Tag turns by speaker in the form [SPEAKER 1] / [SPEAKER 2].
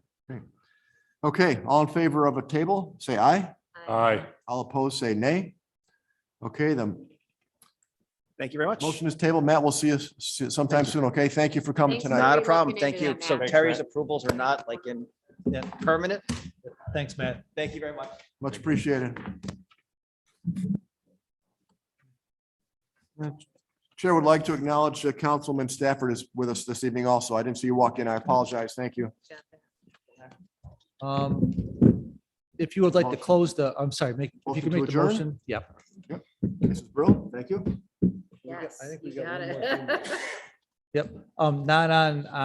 [SPEAKER 1] Great. Okay, all in favor of a table, say aye.
[SPEAKER 2] Aye.
[SPEAKER 1] All opposed, say nay. Okay, the
[SPEAKER 3] Thank you very much.
[SPEAKER 1] motion is tabled. Matt, we'll see you s- sometime soon, okay? Thank you for coming
[SPEAKER 4] Thanks,
[SPEAKER 1] tonight.
[SPEAKER 3] Not a
[SPEAKER 4] We're
[SPEAKER 3] problem.
[SPEAKER 4] looking
[SPEAKER 3] Thank
[SPEAKER 4] into
[SPEAKER 3] you.
[SPEAKER 4] that
[SPEAKER 3] So
[SPEAKER 4] now.
[SPEAKER 3] Terry's approvals are not like in, in permanent.
[SPEAKER 5] Thanks, Matt.
[SPEAKER 3] Thank you very much.
[SPEAKER 1] Much appreciated. Chair would like to acknowledge uh, Councilman Stafford is with us this evening also. I didn't see you walk in. I apologize. Thank you.
[SPEAKER 5] Um, If you would like to
[SPEAKER 1] Motion.
[SPEAKER 5] close the, I'm sorry, make, if
[SPEAKER 1] Motion
[SPEAKER 5] you can
[SPEAKER 1] to
[SPEAKER 5] make the
[SPEAKER 1] adjourn?
[SPEAKER 5] motion, yep.
[SPEAKER 1] Mrs. Brill, thank you.
[SPEAKER 4] Yes,
[SPEAKER 5] I think we
[SPEAKER 4] you
[SPEAKER 5] got
[SPEAKER 4] got
[SPEAKER 5] one more
[SPEAKER 4] it.
[SPEAKER 5] Um, not on,